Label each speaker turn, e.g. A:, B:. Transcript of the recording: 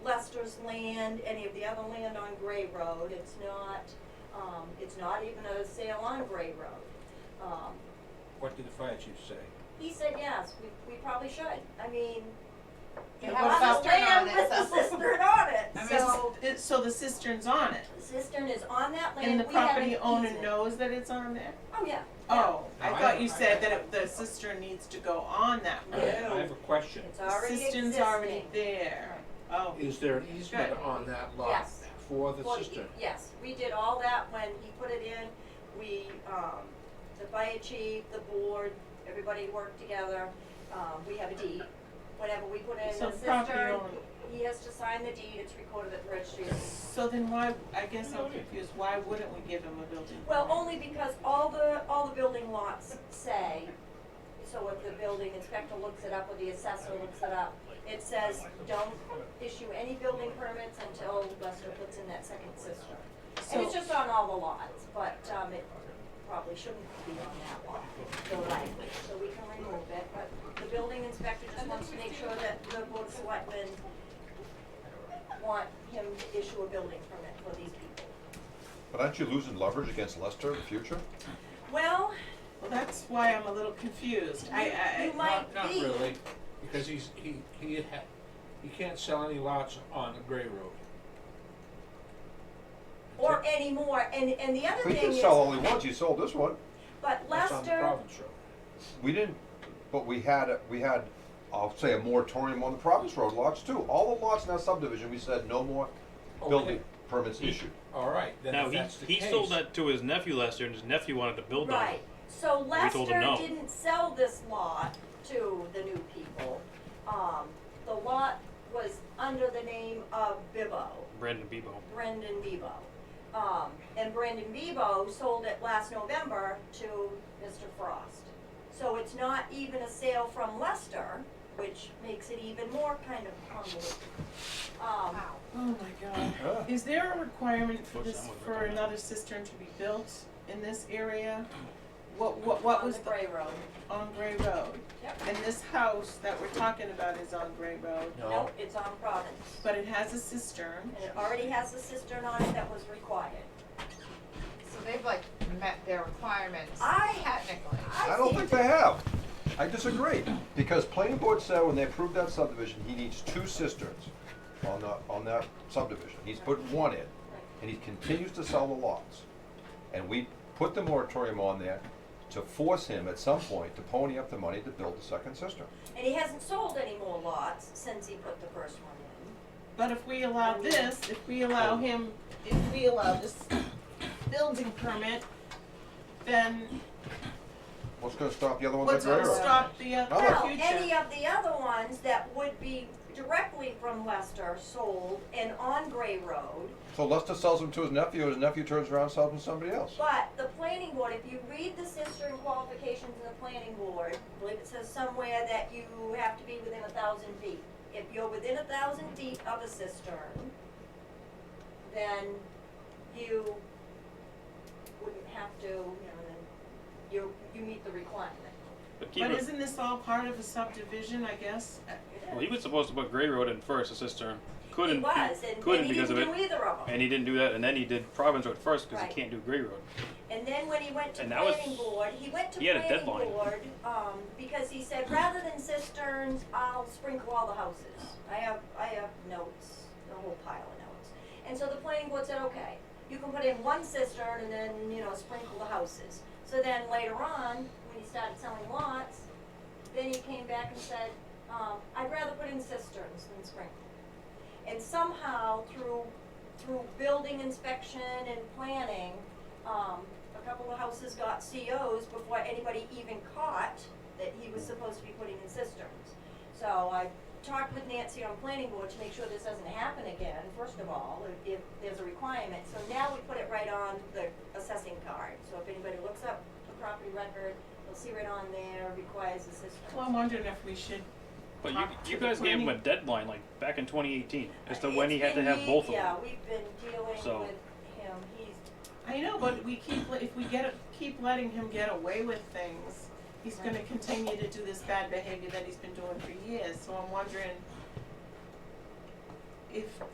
A: and any of the other land on Gray Road. It's not, um, it's not even a sale on Gray Road. Um,
B: What did the fire chief say?
A: he said, yes, we, we probably should. I mean,
C: It
A: a
C: has
A: lot of
C: cistern on
A: land
C: it,
A: with the
C: so-
A: cistern on it,
C: I mean,
A: so
C: so, it, so the cistern's on it,
A: cistern is on that land.
C: and the
A: We have an
C: property owner
A: easement.
C: knows that it's on there?
A: Oh, yeah.
C: Oh,
B: No,
C: I
B: I
C: thought
B: don't-
C: you
B: I-
C: said that it- the cistern needs to go on that
B: I
C: road.
B: I have a question.
A: It's
C: The
A: already existing.
C: cistern's already there, oh,
B: Is there an easement
C: Good.
B: on that lot
A: Yes.
B: for the
A: Well, y-
B: cistern?
A: Yes, we did all that when he put it in, we, um, the fire chief, the board, everybody worked together, um, we have a deed. Whenever we put in
C: So
A: a
C: the property
A: cistern,
C: owner-
A: he has to sign the deed, it's recorded at the registry.
C: so then why, I guess
B: No,
C: I'm
B: it-
C: confused, why wouldn't we give him a building permit?
A: Well, only because all the, all the building lots say, so if the building inspector looks it up or the assessor looks it up, it says, don't issue any building permits until Lester puts in that second cistern. And it's
C: So-
A: just on all the lots, but, um, it probably shouldn't be on that lot, the language, so we can remove it, but the building inspector just wants to make sure that the board of selectmen want him to issue a building permit for these people.
D: But aren't you losing leverage against Lester in the future?
A: Well,
C: Well, that's why I'm a little confused, I, I.
A: You
C: I-
A: might
B: Not, not
A: be.
B: really, because he's, he, he ha he can't sell any lots on the Gray Road.
A: or
B: Except-
A: any more, and, and the other
D: He
A: thing
D: can
A: is,
D: sell all he wants, he sold this one.
A: but
B: That's on the
A: Lester,
B: Province Road.
D: We didn't, but we had, we had, I'll say a moratorium on the Province Road lots too. All the lots in that subdivision, we said no more building
B: Okay.
D: permits issued.
B: All right, then
E: Now
B: if
E: he,
B: that's the
E: he
B: case-
E: sold that to his nephew last year, and his nephew wanted to build on
A: right,
E: it.
A: so
E: We told him
A: Lester
E: no.
A: didn't sell this lot to the new people. Um, the lot was under the name of Bibbo.
E: Brandon Bebo.
A: Brendan Bebo. Um, and Brendan Bebo sold it last November to Mr. Frost. So it's not even a sale from Lester, which makes it even more kind of convoluted. Um,
C: Oh my God.
D: Yeah.
C: Is there a requirement for
E: Looks
C: this,
E: somewhat
C: for
E: like that.
C: another cistern to be built in this area? What, what, what was
A: On the
C: the,
A: Gray Road.
C: on Gray Road?
A: Yep.
C: And this house that we're talking about is on Gray Road,
B: No,
A: Nope, it's on Providence.
C: but it has a cistern.
A: And it already has the cistern on it that was required.
F: So they've like met their requirements
A: I-
F: technically.
D: I don't think they have. I disagree, because planning board said when they approved that subdivision, he needs two cisterns on the, on that subdivision. He's put one in, and he continues to sell the lots. And we put the moratorium on there to force him at some point to pony up the money to build the second cistern.
A: And he hasn't sold any more lots since he put the first one in.
C: But if we allow this, if we
E: Oh.
C: allow him, if we allow this building permit, then
D: What's gonna stop the other ones
C: what's
D: at Gray
C: gonna
D: Road?
C: stop the, uh,
D: Oh.
C: the
A: Well,
C: future?
A: any of the other ones that would be directly from Lester sold and on Gray Road,
D: So Lester sells them to his nephew, and his nephew turns around and sells them to somebody else.
A: But the planning board, if you read the cistern qualifications in the planning board, I believe it says somewhere that you have to be within a thousand feet. If you're within a thousand feet of a cistern, then you wouldn't have to, you know, then you, you meet the requirement.
E: But keep
C: But
E: it.
C: isn't this all part of a subdivision, I guess?
E: Well, he was supposed to put Gray Road in first, a cistern. Couldn't.
A: He was, and,
E: couldn't
A: and he
E: because
A: didn't
E: of
A: do
E: it.
A: either of them.
E: And he didn't do that, and then he did Province Road first because
A: Right.
E: he can't do Gray Road.
A: And then when he went to
E: And that was-
A: planning board, he went to
E: he had a
A: planning
E: deadline.
A: board, um, because he said, rather than cisterns, I'll sprinkle all the houses. I have, I have notes, a whole pile of notes. And so the planning board said, okay, you can put in one cistern and then, you know, sprinkle the houses. So then later on, when he started selling lots, then he came back and said, um, I'd rather put in cisterns than sprinkle. And somehow through, through building inspection and planning, um, a couple of houses got COs before anybody even caught that he was supposed to be putting in cisterns. So I talked with Nancy on planning board to make sure this doesn't happen again, first of all, if, if there's a requirement. So now we put it right on the assessing card, so if anybody looks up the property record, they'll see right on there, requires a cistern.
C: Well, I'm wondering if we should
E: But you,
C: Talk to
E: you
C: the
E: guys gave him a
C: planning-
E: deadline, like back in 2018, as to
A: It's
E: when he had to
A: been
E: have
A: ye-
E: both of them.
A: Yeah, we've been
E: So-
A: dealing with him, he's,
C: I know, but we keep, le- if we get, keep letting him get away with things, he's gonna continue to do this bad behavior that he's been doing for years, so I'm wondering if